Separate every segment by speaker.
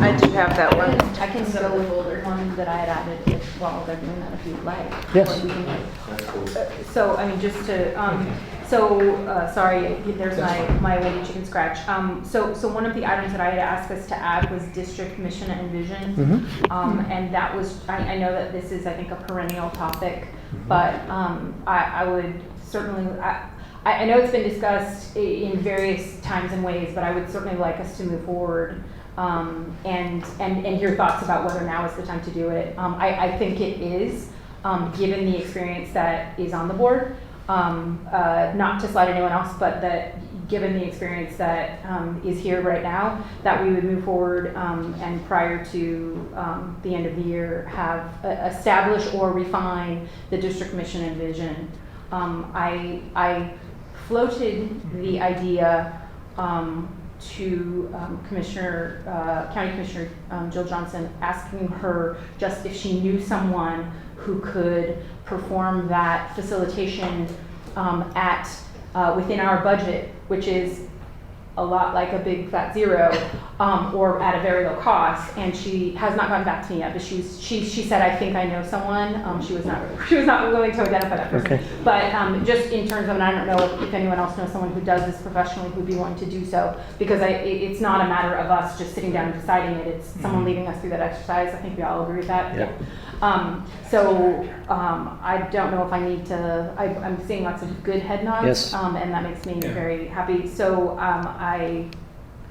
Speaker 1: I do have that one.
Speaker 2: I can go with older one that I had added if- while they're doing that if you'd like.
Speaker 3: Yes.
Speaker 2: Or you can, like,
Speaker 1: Uh, So, I mean, just to, um, so, uh, sorry, there's my, my lady chicken scratch. Um, so, so one of the items that I had asked us to add was district mission and vision.
Speaker 3: Mhm.
Speaker 1: Um, and that was, I, I know that this is, I think, a perennial topic, but, um, I, I would certainly, I, I, I know it's been discussed i- in various times and ways, but I would certainly like us to move forward, um, and, and, and hear thoughts about whether now is the time to do it. Um, I, I think it is, um, given the experience that is on the board. Um, uh, not to slight anyone else, but that, given the experience that, um, is here right now, that we would move forward, um, and prior to, um, the end of the year, have, uh, establish or refine the district mission and vision. Um, I, I floated the idea, um, to um, Commissioner, uh, County Commissioner um, Jill Johnson, asking her just if she knew someone who could perform that facilitation um, at, uh, within our budget, which is a lot like a big fat zero, um, or at a very low cost. And she has not gotten back to me yet, but she's, she, she said, I think I know someone. Um, she was not, she was not willing to identify that person.
Speaker 3: Okay.
Speaker 1: But um, just in terms of, and I don't know if anyone else knows someone who does this professionally who'd be willing to do so, because I, it, it's not a matter of us just sitting down and deciding it, it's
Speaker 3: Mhm.
Speaker 1: someone leading us through that exercise, I think we all agree with that.
Speaker 3: Yep.
Speaker 1: Um, so, um, I don't know if I need to, I, I'm seeing lots of good head nods.
Speaker 3: Yes.
Speaker 1: Um, and that makes me
Speaker 4: Yeah.
Speaker 1: very happy, so, um, I,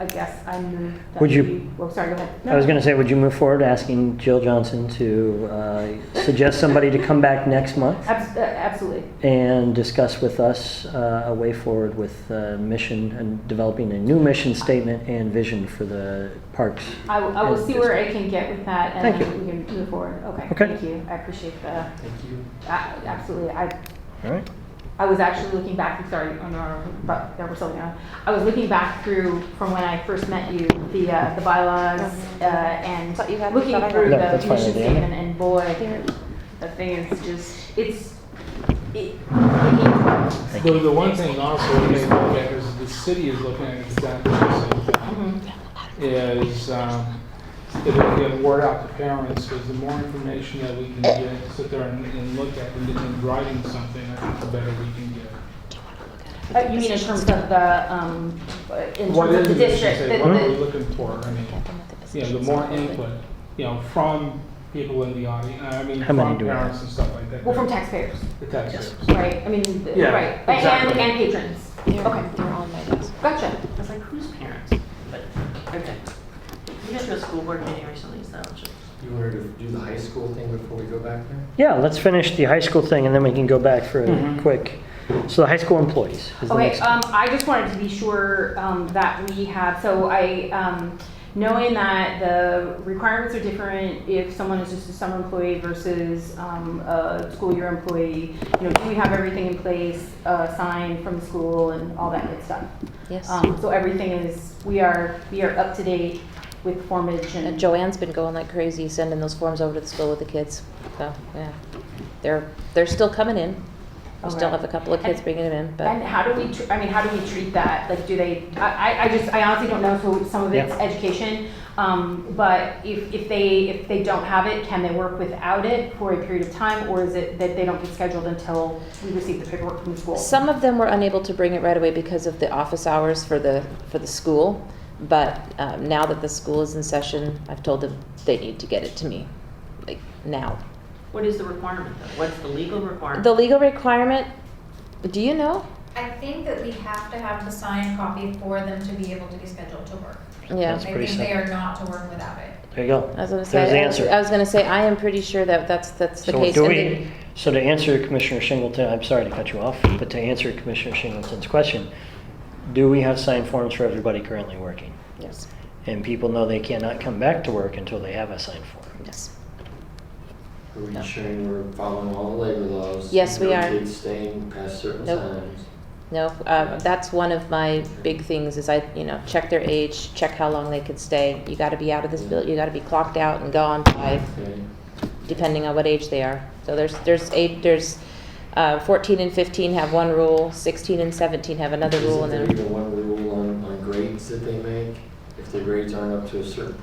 Speaker 1: I guess I move that
Speaker 3: Would you-
Speaker 1: we- Oh, sorry, go ahead.
Speaker 3: I was going to say, would you move forward asking Jill Johnson to uh, suggest somebody to come back next month
Speaker 1: Abs- uh, Absolutely,
Speaker 3: and discuss with us uh, a way forward with uh, mission and developing a new mission statement and vision for the parks?
Speaker 1: I will, I will
Speaker 3: And
Speaker 1: see where I can get with that and
Speaker 3: Thank you.
Speaker 1: then we can move forward. Okay,
Speaker 3: Okay.
Speaker 1: thank you. I appreciate the,
Speaker 4: Thank you.
Speaker 1: a- absolutely. I,
Speaker 3: All right.
Speaker 1: I was actually looking back, sorry, on our, but there we're still going. I was looking back through from when I first met you, the, uh, the bylaws, uh, and
Speaker 2: Thought you had-
Speaker 1: looking
Speaker 2: thought I
Speaker 1: through
Speaker 3: had- No,
Speaker 1: the
Speaker 3: that's fine,
Speaker 1: mission
Speaker 3: Indiana.
Speaker 1: statement and boy, the thing is just, it's, it, it needs-
Speaker 3: Thank
Speaker 5: So the one thing also we may look at is the city is looking at exactly the same thing,
Speaker 2: Mm-hmm.
Speaker 1: mhm.
Speaker 5: is um, that we can word out to parents, because the more information that we can get, sit there and- and look at and then writing something, I think the better we can get.
Speaker 1: Uh, you mean in terms of the, um, uh, in
Speaker 5: What
Speaker 1: terms of
Speaker 5: is
Speaker 1: the
Speaker 5: it, you should
Speaker 1: district?
Speaker 5: say,
Speaker 1: the-
Speaker 5: What are
Speaker 1: the-
Speaker 5: we looking for? I mean, you know, the more input, you know, from people in the audience, I mean,
Speaker 3: How many
Speaker 5: from
Speaker 3: do we have?
Speaker 5: parents and stuff like that.
Speaker 1: Well, from taxpayers,
Speaker 5: The taxpayers.
Speaker 1: right? I mean, the-
Speaker 5: Yeah,
Speaker 1: right, and,
Speaker 5: exactly.
Speaker 1: and patrons. Okay,
Speaker 6: They're on my desk.
Speaker 1: gotcha.
Speaker 6: I was like, who's parents? But, okay. You guys were a school board meeting recently, so. it's just-
Speaker 7: You wanted to do the high school thing before we go back there?
Speaker 3: Yeah, let's finish the high school thing and then we can go back for a
Speaker 6: Mm-hmm.
Speaker 5: Mhm.
Speaker 3: quick. So the high school employees is the
Speaker 1: Okay,
Speaker 3: next.
Speaker 1: um, I just wanted to be sure, um, that we have, so I, um, knowing that the requirements are different if someone is just a summer employee versus, um, a school year employee, you know, do we have everything in place, uh, signed from the school and all that good stuff?
Speaker 2: Yes.
Speaker 1: Um, so everything is, we are, we are up to date with formage
Speaker 6: And
Speaker 1: and.
Speaker 6: Joanne's been going like crazy, sending those forms over to the school with the kids. So, yeah. They're, they're still coming in. We still
Speaker 1: Okay.
Speaker 6: have a couple of kids
Speaker 1: And-
Speaker 6: bringing them in,
Speaker 1: And
Speaker 6: but
Speaker 1: how do we, tr- I mean, how do we treat that? Like, do they, I, I- I just, I honestly don't know, so some of it's
Speaker 3: Yeah.
Speaker 1: education. Um, but if, if they, if they don't have it, can they work without it for a period of time? Or is it that they don't get scheduled until we receive the paperwork from the school?
Speaker 6: some of them were unable to bring it right away because of the office hours for the, for the school. But um, now that the school is in session, I've told them they need to get it to me, like now.
Speaker 8: What is the requirement though? What's the legal requirement?
Speaker 6: The legal requirement, do you know?
Speaker 9: I think that we have to have the signed copy for them to be able to be scheduled to work.
Speaker 6: Yeah.
Speaker 3: That's pretty
Speaker 9: I think they
Speaker 3: simple.
Speaker 9: are not to work without it.
Speaker 3: There you go.
Speaker 6: I was gonna say.
Speaker 3: There's the
Speaker 6: I-
Speaker 3: answer.
Speaker 6: I was gonna say, I am pretty sure that that's, that's the
Speaker 3: So
Speaker 6: case.
Speaker 3: do
Speaker 6: And
Speaker 3: we-
Speaker 6: then-
Speaker 3: So to answer Commissioner Singleton, I'm sorry to cut you off, but to answer Commissioner Singleton's question, do we have signed forms for everybody currently working?
Speaker 6: Yes,
Speaker 3: And people know they cannot come back to work until they have a signed form.
Speaker 6: yes.
Speaker 7: Are we
Speaker 6: No.
Speaker 7: ensuring we're following all the labor laws?
Speaker 6: Yes, we
Speaker 7: No
Speaker 6: are.
Speaker 7: kids staying past certain
Speaker 6: Nope.
Speaker 7: times?
Speaker 6: No, uh, that's one of my big things is I, you know, check their age, check how long they could stay. You gotta be out of this bill, you gotta be clocked out and gone by,
Speaker 7: Okay.
Speaker 6: depending on what age they are. So there's, there's eight, there's, uh, fourteen and fifteen have one rule, sixteen and seventeen have another rule,
Speaker 7: Isn't
Speaker 6: and
Speaker 7: there
Speaker 6: then,
Speaker 7: even one rule on, on grades that they make? If the grades aren't up to a certain